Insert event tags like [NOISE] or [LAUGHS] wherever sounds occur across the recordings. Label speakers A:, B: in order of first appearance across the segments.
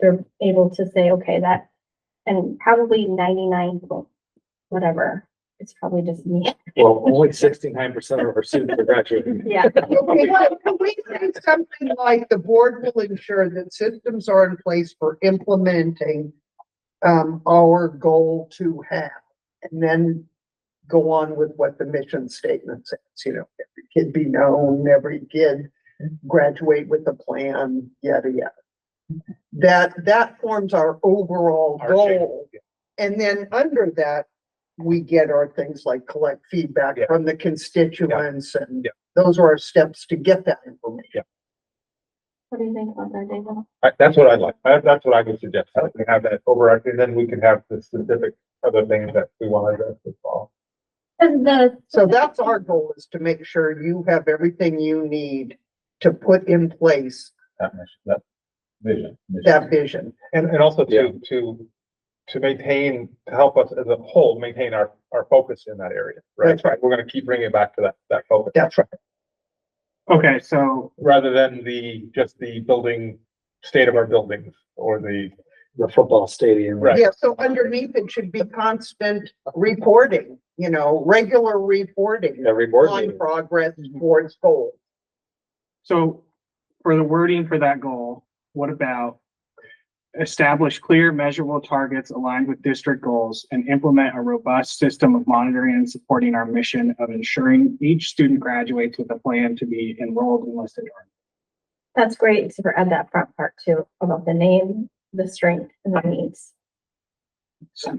A: they're able to say, okay, that, and probably ninety-nine, point whatever, it's probably just me.
B: Well, only sixty-nine percent of our students are graduating.
A: [LAUGHS] Yeah,
C: Okay, well, Can we say something like the board will ensure that systems are in place for implementing um, our goal to have, and then go on with what the mission statement says, you know, every kid be known, every kid graduate with a plan, yada, yada. That, that forms our overall
B: Our shape,
C: goal. And then under that, we get our things like collect feedback
B: Yeah.
C: from the constituents and
B: Yeah.
C: those are our steps to get that information.
A: what do you think about that, David?
D: I, that's what I like. That, that's what I would suggest. I can have that overarching, then we can have the specific other things that we want to address as well.
A: Cause the.
C: So that's our goal is to make sure you have everything you need to put in place
D: That mission, that vision. mission.
C: that vision.
D: And, and also
B: Yeah.
D: to, to, to maintain, to help us as a whole, maintain our, our focus in that area, right?
C: That's right.
D: We're gonna keep bringing it back to that, that focus,
C: That's right.
E: Okay, so,
D: rather than the, just the building, state of our buildings or the,
B: The football stadium.
D: Right.
C: Yeah, so underneath it should be constant reporting, you know, regular reporting
B: Every board
C: on
B: meeting.
C: progress towards goals.
E: so for the wording for that goal, what about establish clear measurable targets aligned with district goals and implement a robust system of monitoring and supporting our mission of ensuring each student graduates with a plan to be enrolled in West Edgewater?
A: That's great to add that front part too, about the name, the strength and the needs.
E: So-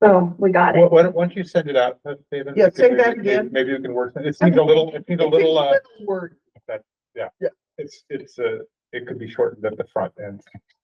A: Boom, we got
D: why, [LAUGHS]
A: it.
D: why don't, why don't you send it out, uh, David?
C: Yeah, say
D: Maybe-
C: that
D: maybe-
C: again.
D: Maybe we can work, it needs a little, it needs a little, uh,
C: Word.
D: it's, it's, uh, it could be shortened at the front end.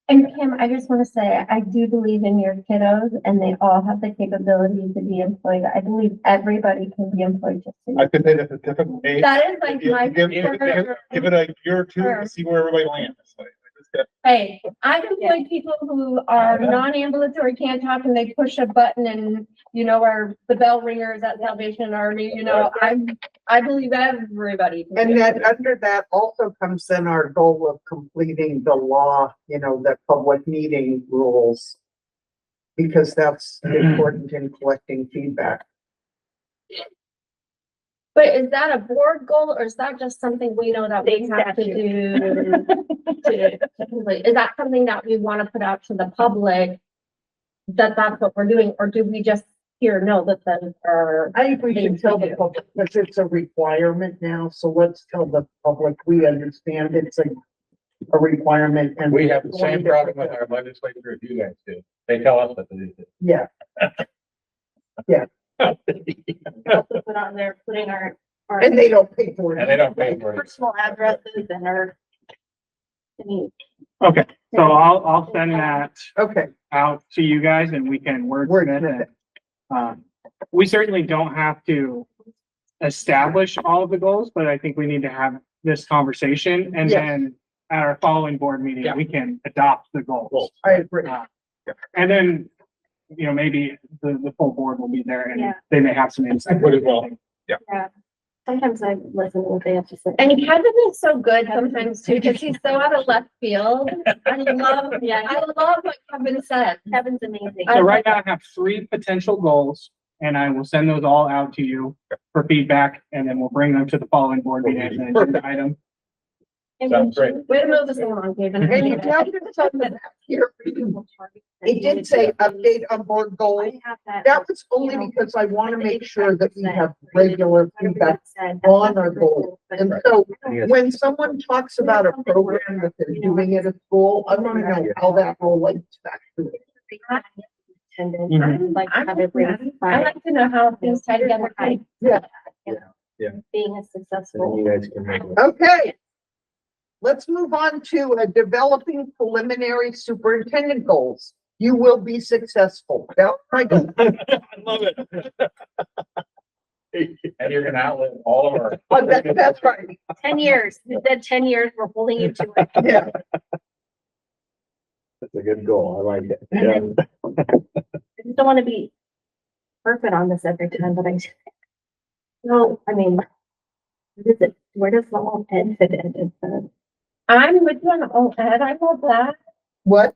F: And Kim, I just want to say, I do believe in your kiddos and they all have the capability to be employed. I believe everybody can be employed. just in-
D: I could say that's a typical age.
F: That is like
D: Give-
F: my.
D: give- give- give- Give it a year or two to see where everybody lands. Like, it's got-
F: Hey, I've employed people who are non-ambulatory, can't talk and they push a button and, you know, are the bell ringers at Salvation Army, you know, I'm, I believe everybody. can
C: And
F: do it.
C: then under that also comes in our goal of completing the law, you know, the public meeting rules. Because
D: [CLEARS THROAT]
C: that's important in collecting feedback.
F: But is that a board goal or is that just something we know that we have to do? to- to complete? Is that something that we want to put out to the public? That that's what we're doing, or do we just here know that those are?
C: I think we should tell the public, because it's a requirement now, so let's tell the public, we understand it's a, a requirement and.
G: We have the same problem with our legislature as you guys do. They tell us that it is.
C: Yeah,
A: Also Put on there, putting our, our
C: and they don't pay for
G: And they
C: it.
G: don't pay for it.
A: personal addresses and our. I mean,
E: Okay, so I'll, I'll send that
C: Okay,
E: out to you guys and we can work with
C: Wordsmith
E: it. Um, we certainly don't have to establish all of the goals, but I think we need to have this conversation and
C: Yes.
E: then at our following board meeting,
D: Yeah.
E: we can adopt the goals.
D: Goals.
C: I agree.
E: And then, you know, maybe the, the full board will be there
A: Yeah.
E: and they may have some insight.
D: Would as well.
A: sometimes I listen to what they have to say.
F: And Kevin is so good sometimes too, because he's so out of left field. I love, yeah, I love what Kevin said.
A: Kevin's amazing.
E: So right now I have three potential goals and I will send those all out to you for feedback and then we'll bring them to the following board meeting as an agenda item.
D: Sounds great.
F: Way to move us along, Kevin.
C: And you tell them something out here, it did say update on board goals.
A: I have that.
C: That was only because I want to make sure that we have regular feedback. on our goals. And so when someone talks about a program that they're doing at a school, I want to know how that relates back to it.
A: Attendance,
E: Mhm.
A: I'd like to have everyone
F: I like to know how things tie together.
A: being a successful.
B: And you guys can make it.
C: Okay. Let's move on to uh, developing preliminary superintendent goals. You will be successful. That, I go,
D: I love
B: [LAUGHS]
D: it.
G: And you're gonna outlive all of our.
C: oh, that- that's right.
A: Ten years, you said ten years, we're holding you to it.
C: Yeah.
B: That's a good goal. I like [LAUGHS] it.
A: And
B: Yeah.
A: then- I just don't want to be perfect on this every time, but I no, I mean, what is it, where does the whole end fit in? It's, uh,
F: I'm with you on all that. I love that.
C: What?